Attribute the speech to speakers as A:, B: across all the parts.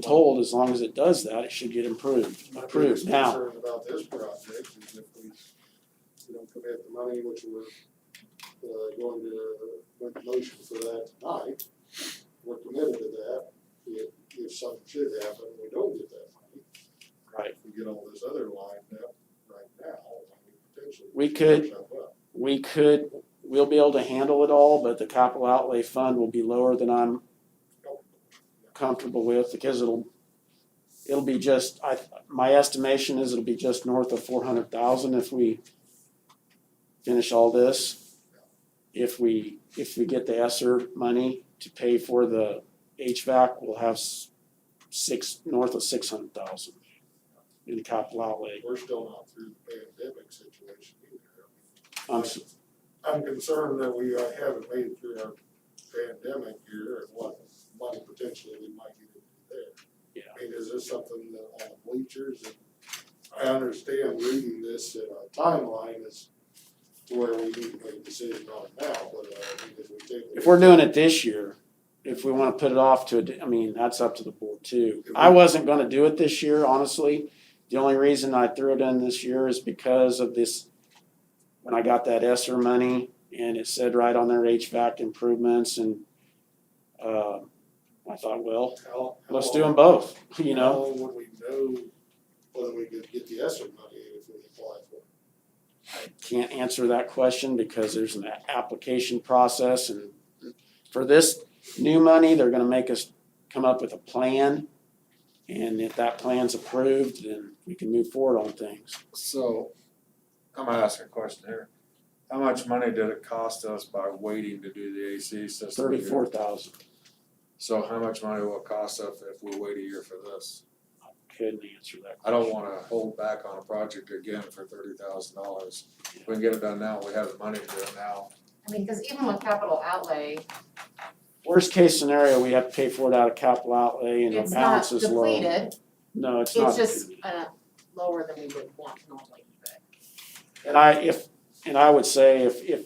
A: told as long as it does that, it should get improved,
B: My
A: approved
B: biggest
A: now.
B: concern about this project is if we, we don't commit the money, which we're uh going to make a motion for that tonight, we're committed to that. If if something should happen, we don't get that money.
A: Right.
B: We get all this other lined up right now, I mean, potentially.
A: We could-
B: should jump up.
A: We could, we'll be able to handle it all, but the capital outlay fund will be lower than I'm comfortable with because it'll, it'll be just, I, my estimation is it'll be just north of four hundred thousand if we finish all this. If we, if we get the ESSER money to pay for the HVAC, we'll have s- six, north of six hundred thousand in capital outlay.
B: We're still not through the pandemic situation either.
A: I'm s-
B: I'm concerned that we uh, haven't made it through our pandemic year and what money potentially we might get into there.
A: Yeah.
B: I mean, is this something that on the bleachers and I understand reading this in a timeline is to where we need to make a decision on it now, but uh, I mean, if we take.
A: if we're doing it this year, if we wanna put it off to, a d- I mean, that's up to the board too. I wasn't gonna do it this year, honestly. The only reason I threw it in this year is because of this, when I got that ESSER money and it said right on there HVAC improvements and, uh, I thought, well,
B: How- how
A: let's do
B: long-
A: them both, you
B: How
A: know?
B: long would we know whether we could get the ESSER money if we apply for it?
A: Can't answer that question because there's an a- application process and for this new money, they're gonna make us come up with a plan. And if that plan's approved, then we can move forward on things.
C: So, I'm gonna ask a question here. How much money did it cost us by waiting to do the AC system? here?
A: Thirty-four thousand,
C: So how much money will it cost us if we wait a year for this?
A: couldn't answer that.
C: I don't wanna hold back on a project again for thirty thousand dollars. If we can get it done now, we have the money to do it now.
D: I mean, cause even with capital outlay,
A: Worst case scenario, we have to pay for it out of capital outlay and the
D: it's not
A: balance is low.
D: depleted,
A: No, it's not.
D: it's just
A: depleted.
D: uh lower than we would want normally, but.
A: And I, if, and I would say if, if,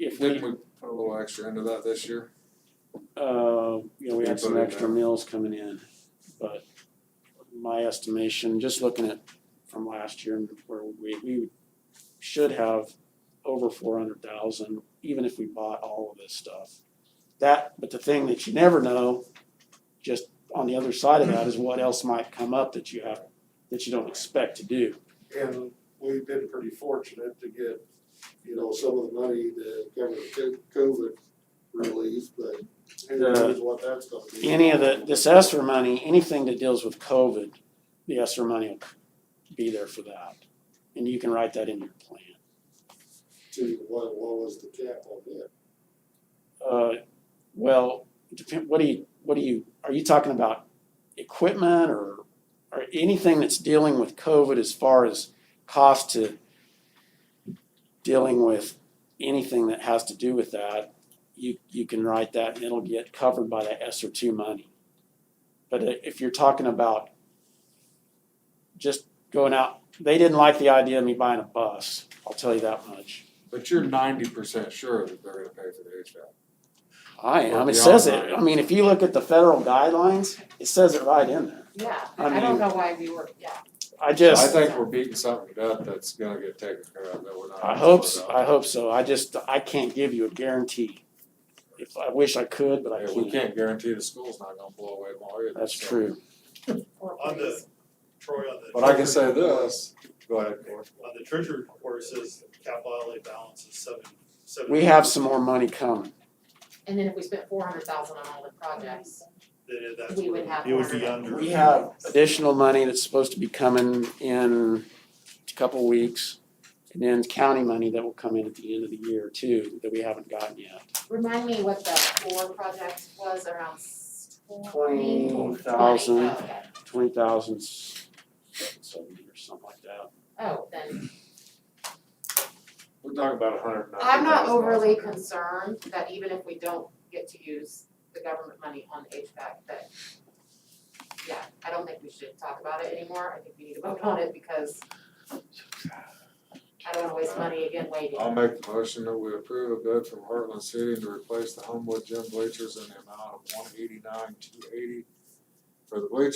A: if we,
C: Didn't we put a little extra into that this year?
A: uh, you know, we had some
C: Everybody
A: extra
C: back.
A: meals coming in, but my estimation, just looking at from last year and where we, we should have over four hundred thousand, even if we bought all of this stuff. That, but the thing that you never know, just on the other side of that is what else might come up that you have, that you don't expect to do.
B: And we've been pretty fortunate to get, you know, some of the money to cover the co- COVID relief, but who knows what that's gonna be.
A: Any of the, this ESSER money, anything that deals with COVID, the ESSER money will be there for that. And you can write that in your plan.
B: To what, what was the cap on that?
A: Uh, well, depend, what do you, what do you, are you talking about equipment or, or anything that's dealing with COVID as far as cost to dealing with anything that has to do with that, you, you can write that and it'll get covered by that S or two money. But i- if you're talking about just going out, they didn't like the idea of me buying a bus, I'll tell you that much.
C: But you're ninety percent sure that they're gonna pay for the HVAC.
A: I am,
C: Or
A: it says it,
C: beyond that.
A: I mean, if you look at the federal guidelines, it says it right in there.
D: Yeah,
A: I
D: I
A: mean-
D: don't know why we were, yeah,
A: I
C: I
A: just,
C: think we're beating something to death that's gonna get taken care of, that we're not.
A: I hope,
C: concerned
A: so.
C: about.
A: I hope so, I just, I can't give you a guarantee. If, I wish I could, but I
C: Yeah, we
A: can't,
C: can't guarantee the school's not gonna blow away more either.
A: that's
C: so.
A: true.
D: or
E: On the-
D: please.
E: Troy, on the.
C: But I can say this, go ahead, Corey.
E: On the treasury report, it says capital outlay balance is seven, seven.
A: We have some more money coming,
D: And then if we spent four hundred thousand on all the projects,
E: Then that's.
D: we
E: what
D: would have
E: It would be
D: 400.
E: under.
A: we have additional money that's supposed to be coming in a couple weeks. And then county money that will come in at the end of the year too, that we haven't gotten yet.
D: remind me what the four projects was around s-
A: Twenty
D: twenty, twenty,
A: thousand.
D: oh, okay.
A: Twenty thousand seventy or something like that.
D: Oh, then,
C: We're talking about a hundred and ninety.
D: I'm not overly concerned that even if we don't get to use the government money on the HVAC, but yeah, I don't think we should talk about it anymore, I think we need to vote on it because I don't wanna waste money again waiting.
C: I'll make the motion that we approve a bid from Heartland Seating to replace the Homewood gym bleachers in the amount of one eighty-nine, two eighty for the bleachers